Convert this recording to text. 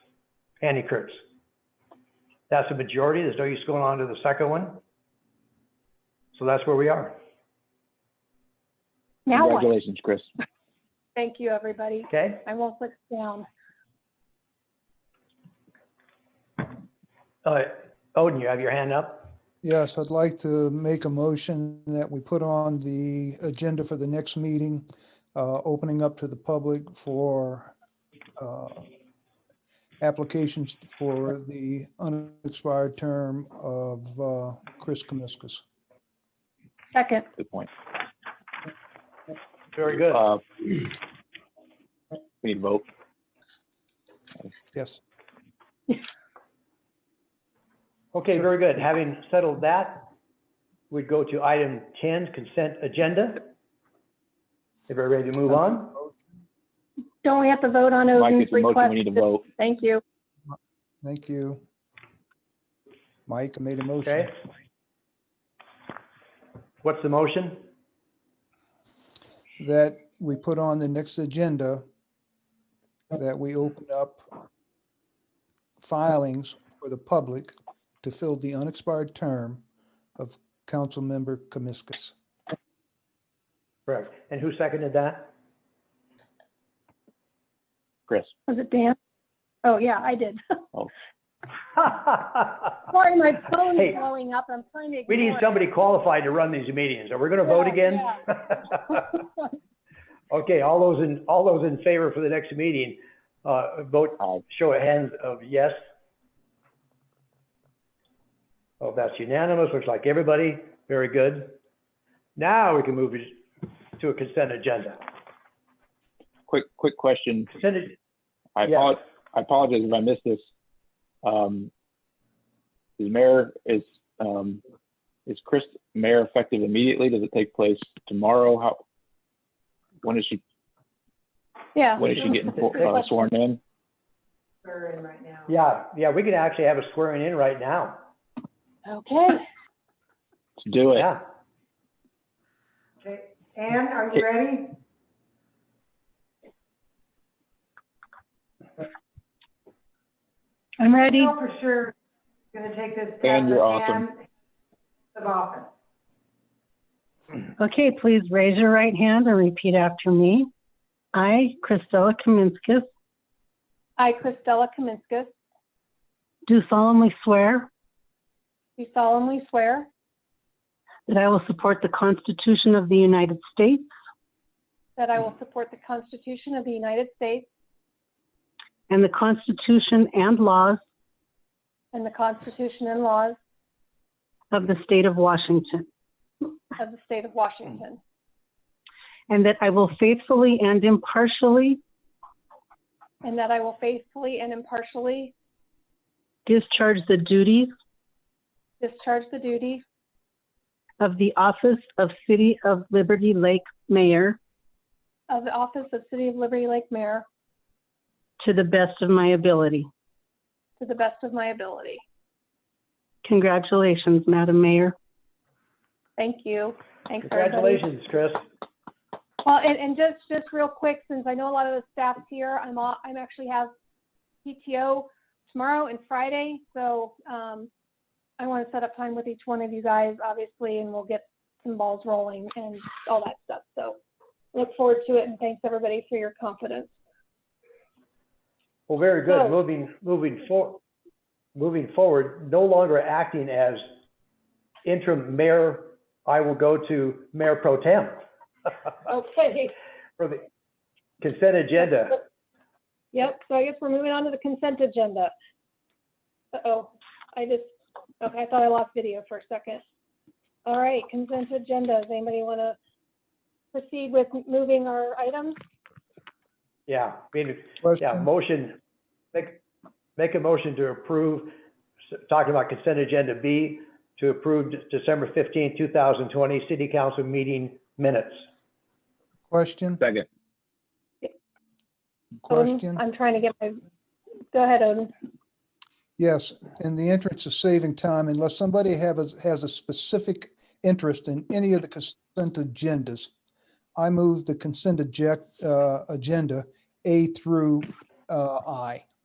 Andy Kurtz. That's a majority. There's no use going on to the second one. So that's where we are. Now what? Congratulations, Chris. Thank you, everybody. Okay? I won't look down. Uh, Odin, you have your hand up? Yes, I'd like to make a motion that we put on the agenda for the next meeting, uh, opening up to the public for uh, applications for the unexpired term of uh, Chris Kamiskas. Second, Good point. Very good. Uh, We need to vote. Yes. Okay, Sure. very good. Having settled that, we'd go to item 10, consent agenda. If we're ready to move on, don't we have to vote on Mike, Odin's it's a motion. request? We need to vote. Thank you. Thank you. Mike made a motion. okay? What's the motion? that we put on the next agenda, that we open up filings for the public to fill the unexpired term of Councilmember Kamiskas. Correct. And who seconded that? Chris, Was it Dan? Oh, yeah, I did. Sorry, my phone Hey. is blowing up. I'm trying to ignore We need it. somebody qualified to run these meetings. Are we going to vote Yeah, again? Okay, all those in, all those in favor for the next meeting, uh, vote, Aye. show of hands of yes. Oh, that's unanimous. Looks like everybody. Very good. Now we can move to a consent agenda. quick, quick question. Consent, ag- I Yeah. apologize, I apologize if I missed this. Um, The mayor is, um, is Chris mayor effective immediately? Does it take place tomorrow? How, when is she, Yeah. when is she getting for- uh, sworn in? we're in right now. yeah, yeah, we can actually have a squaring in right now. Okay, To do it. Yeah. Okay, Anne, are you ready? I'm ready. No, for sure, gonna take this. Anne, you're path, awesome. Anne, Of office. Okay, please raise your right hand and repeat after me. I, Christella Kaminskis, I, Christella Kaminskas, do solemnly swear do solemnly swear that I will support the Constitution of the United States that I will support the Constitution of the United States and the Constitution and laws and the Constitution and laws of the state of Washington, of the state of Washington, and that I will faithfully and impartially and that I will faithfully and impartially discharge the duties discharge the duties of the office of City of Liberty Lake Mayor of the office of City of Liberty Lake Mayor to the best of my ability. to the best of my ability. Congratulations, Madam Mayor. Thank you. Thanks, everybody. Congratulations, Chris. Well, and, and just, just real quick, since I know a lot of the staff's here, I'm, all- I'm actually have PTO tomorrow and Friday, so, um, I want to set up time with each one of you guys, obviously, and we'll get some balls rolling and all that stuff, so look forward to it, and thanks, everybody, for your confidence. Well, very good. So- Moving, moving for, moving forward, no longer acting as interim mayor, I will go to mayor pro tem Okay, for the consent agenda. yep, so I guess we're moving on to the consent agenda. Uh-oh, I just, okay, I thought I lost video for a second. All right, consent agenda, does anybody want to proceed with moving our items? Yeah, I mean, yeah, Question, motion, make, make a motion to approve, s- talking about consent agenda B, to approve December fifteenth, two thousand twenty, city council meeting minutes. question, Second. Odin? question. I'm trying to get my, go ahead, Odin. Yes, in the interest of saving time, unless somebody have, a- has a specific interest in any of the consent agendas, I move the consent eject, uh, agenda A through, uh, I.